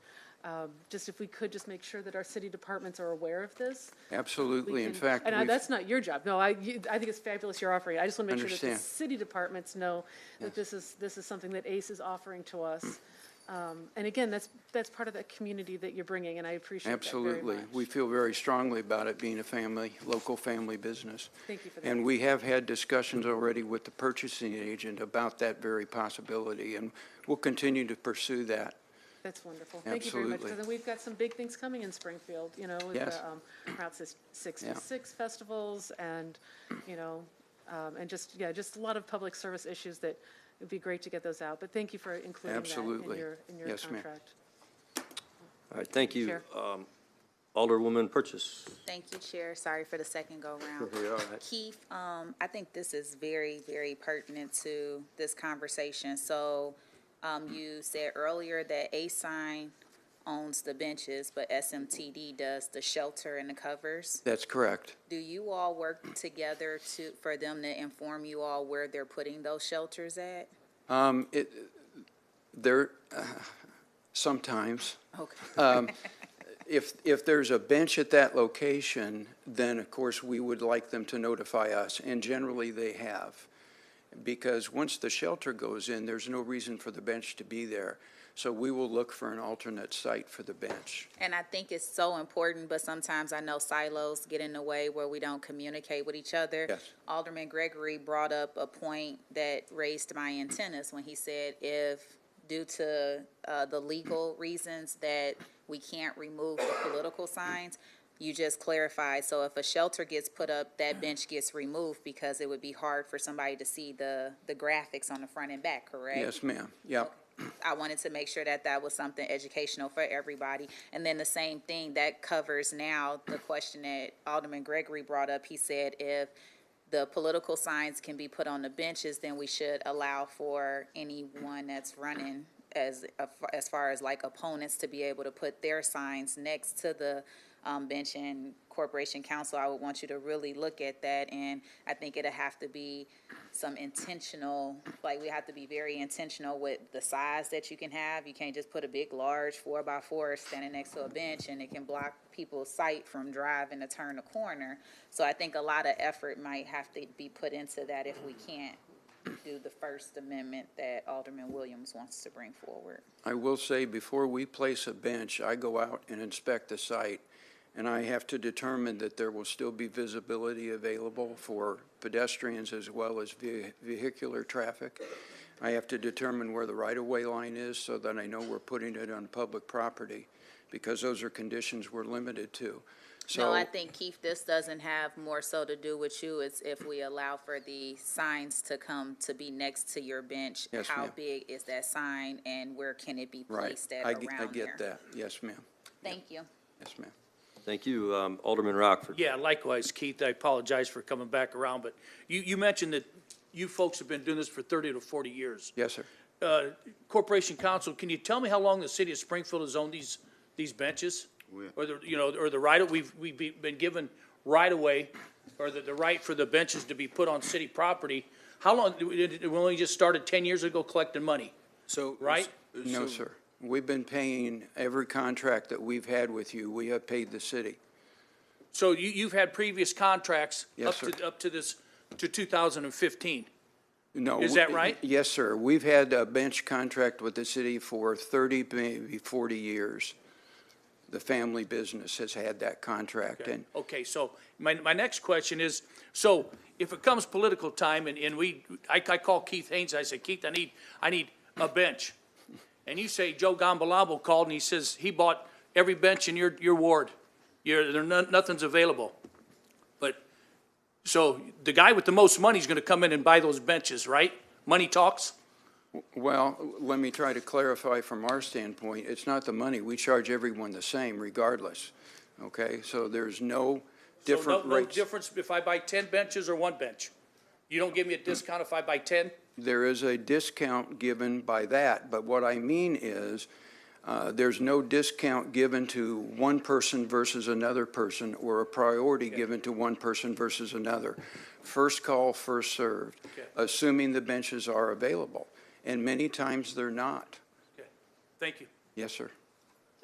Um, Just if we could just make sure that our city departments are aware of this. we Absolutely. In can- fact, And I- we've- that's not your job. No, I, you- I think it's fabulous you're offering. it. I just want to make sure that the Understand. city departments know that this is, this is something that ACE is offering to Mm. us. Um, And again, that's, that's part of that community that you're bringing, and I appreciate that very Absolutely. much. We feel very strongly about it being a family, local family business. Thank you for that. And we have had discussions already with the purchasing agent about that very possibility, and we'll continue to pursue that. That's wonderful. Thank you very much. Because Absolutely. then we've got some big things coming in Springfield, you know, with Yes. the um, Route Six- Six Yeah. Six festivals and, you know, um, and just, yeah, just a lot of public service issues that it'd be great to get those out. But thank you for including that in Absolutely. your, in your Yes, ma'am. contract. All right, thank you. Chair. Um, Alderwoman Purchase. Thank you, Chair. Sorry for the second go-round. You're all right. Keith, um, I think this is very, very pertinent to this conversation. So, um, you said earlier that A-Sign owns the benches, but SMTD does the shelter and the covers. That's correct. Do you all work together to, for them to inform you all where they're putting those shelters at? Um, it, there, sometimes, Okay. if, if there's a bench at that location, then of course, we would like them to notify us, and generally they have. Because once the shelter goes in, there's no reason for the bench to be there. So we will look for an alternate site for the bench. And I think it's so important, but sometimes I know silos get in the way where we don't communicate with each other. Yes. Alderman Gregory brought up a point that raised my antennas when he said if, due to uh, the legal reasons that we can't remove the political signs, you just clarified, so if a shelter gets put up, that bench gets removed because it would be hard for somebody to see the, the graphics on the front and back, correct? Yes, ma'am. Yep. I wanted to make sure that that was something educational for everybody. And then the same thing that covers now the question that Alderman Gregory brought up. He said if the political signs can be put on the benches, then we should allow for anyone that's running as, as far as like opponents to be able to put their signs next to the um, bench and corporation council, I would want you to really look at that. And I think it'll have to be some intentional, like we have to be very intentional with the size that you can have. You can't just put a big, large four by four standing next to a bench and it can block people's sight from driving to turn a corner. So I think a lot of effort might have to be put into that if we can't do the First Amendment that Alderman Williams wants to bring forward. I will say, before we place a bench, I go out and inspect the site, and I have to determine that there will still be visibility available for pedestrians as well as ve- vehicular traffic. I have to determine where the right-of-way line is so that I know we're putting it on public property, because those are conditions we're limited to. No, I So, think Keith, this doesn't have more so to do with you, it's if we allow for the signs to come to be next to your bench. Yes, How ma'am. big is that sign and where can it be right, placed at I around ge- there? I get that. Yes, ma'am. Thank you. Yes, ma'am. Thank you, um, Alderman Rockford. Yeah, likewise, Keith, I apologize for coming back around, but you, you mentioned that you folks have been doing this for thirty to forty years. Yes, sir. Uh, Corporation Council, can you tell me how long the city of Springfield has owned these, these benches? Oh, Or the, you know, or the right, of we've, we've be- been given right away, or the, the right for the benches to be put on city property. How long, we we only just started ten years ago collecting money? So. Right? No, so- sir. We've been paying every contract that we've had with you, we have paid the city. So you, you've had previous contracts up Yes, sir. to, up to this, to two thousand and fifteen. No. Is we- that right? Yes, sir. We've had a bench contract with the city for 30, maybe 40 years. The family business has had that contract, and Okay, so my, my next question is, so if it comes political time and, and we, I, I call Keith Haynes, I say, Keith, I need, I need a bench. And you say Joe Gambalabo called and he says he bought every bench in your, your ward. You're, there, none- nothing's available. But, so the guy with the most money is gonna come in and buy those benches, right? Money talks? Well, let me try to clarify from our standpoint, it's not the money. We charge everyone the same regardless, okay? So there's no So no- different No rates. difference if I buy ten benches or one bench? You don't give me a discount if I buy ten? There is a discount given by that, but what I mean is, uh, there's no discount given to one person versus another person, or a priority given to one person versus another. First call, first served, assuming the benches are available, and many times they're not. Okay, Thank you. Yes, sir.